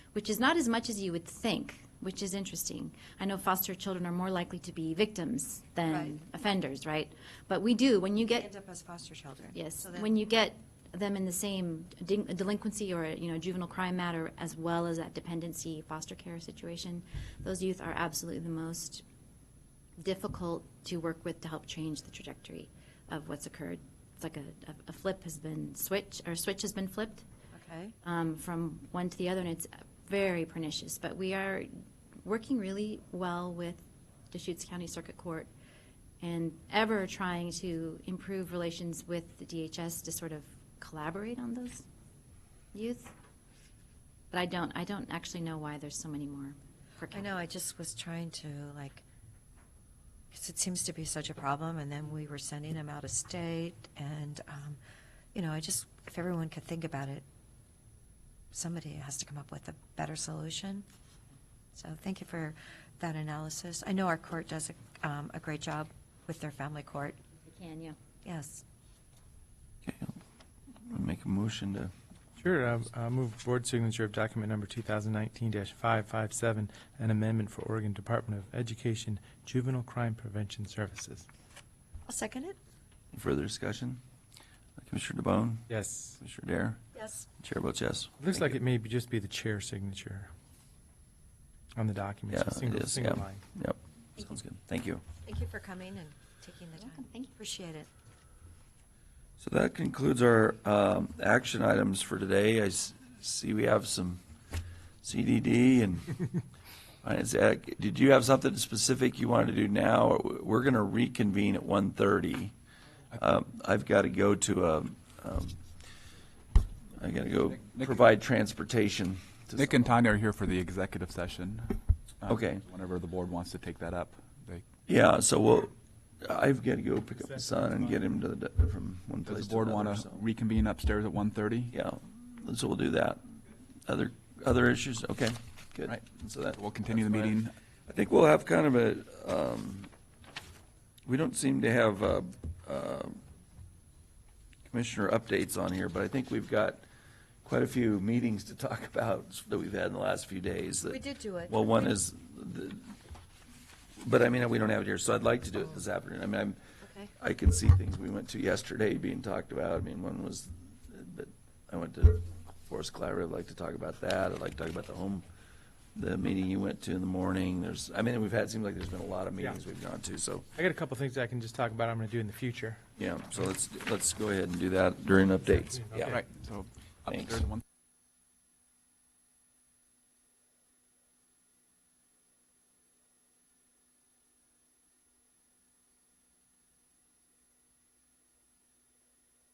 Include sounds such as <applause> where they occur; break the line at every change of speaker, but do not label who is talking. which is not as much as you would think, which is interesting. I know foster children are more likely to be victims than
Right.
offenders, right? But we do, when you
They
get
End up as foster children.
Yes,
So that-
when you get them in the same din- delinquency or, you know, juvenile crime matter, as well as that dependency foster care situation, those youth are absolutely the most difficult to work with to help change the trajectory of what's occurred. It's like a, a- a flip has been switch, or switch has been flipped
Okay,
um, from one to the other, and it's very pernicious. But we are working really well with Deschutes County Circuit Court and ever trying to improve relations with the DHS to sort of collaborate on those youth. But I don't, I don't actually know why there's so many more. per
I
capita.
know, I just was trying to like, because it seems to be such a problem, and then we were sending them out of state, and, um, you know, I just, if everyone could think about it, somebody has to come up with a better solution. So thank you for that analysis. I know our court does a, um, a great job with their family court,
I Can, yeah.
yes.
Okay, I'll Make a motion to,
Sure, I- I move board signature of document number 2019-557, an amendment for Oregon Department of Education Juvenile Crime Prevention Services.
I'll second it.
further discussion? Uh, Commissioner DeBonne?
Yes.
Commissioner Dare?
Yes.
Chair votes yes.
Looks
Thank
like
you.
it may be, just be the chair signature on the document.
Yeah,
It's a
it
single,
is,
single
yeah.
line.
Yep, sounds good. Thank you.
Thank you for coming and taking the
You're
time.
welcome. Thank you.
Appreciate it.
So that concludes our um, action items for today. I s- see we have some CDD
<laughs>
and Finance Act. Did you have something specific you wanted to do now? We're going to reconvene at 1:30. Um, I've got to go to a, um, I got to go
Nick-
provide transportation. to
Nick and Tanya are here for the executive session. Um,
Okay.
Whenever the board wants to take that up, they,
Yeah, so we'll, I've got to go pick up my son and get him to the, from one
does
place
the
to
board
another.
want to
so-
reconvene upstairs at 1:30?
Yeah, so we'll do that. Other, other issues? Okay, good.
Right.
So that,
We'll continue the meeting.
I think we'll have kind of a, um, we don't seem to have, uh, uh, commissioner updates on here, but I think we've got quite a few meetings to talk <laughs> about that we've had in the last few days. that-
We did do it.
Well, one is, the- but I mean, we don't have it here, so I'd like to do it this afternoon. I mean, I'm,
Oh. Okay.
I can see things we went to yesterday being talked about. I mean, one was, but I went to Forest Clary, I'd like to talk about that. I'd like to talk about the home, the meeting you went to in the morning. There's, I mean, we've had, seems like there's been a lot of meetings
Yeah.
we've gone to, so,
I got a couple things I can just talk about I'm going to do in the future.
yeah, so let's, let's go ahead and do that during updates.
Yeah.
Yeah,
Right, so
Thanks.
upstairs at 1:30.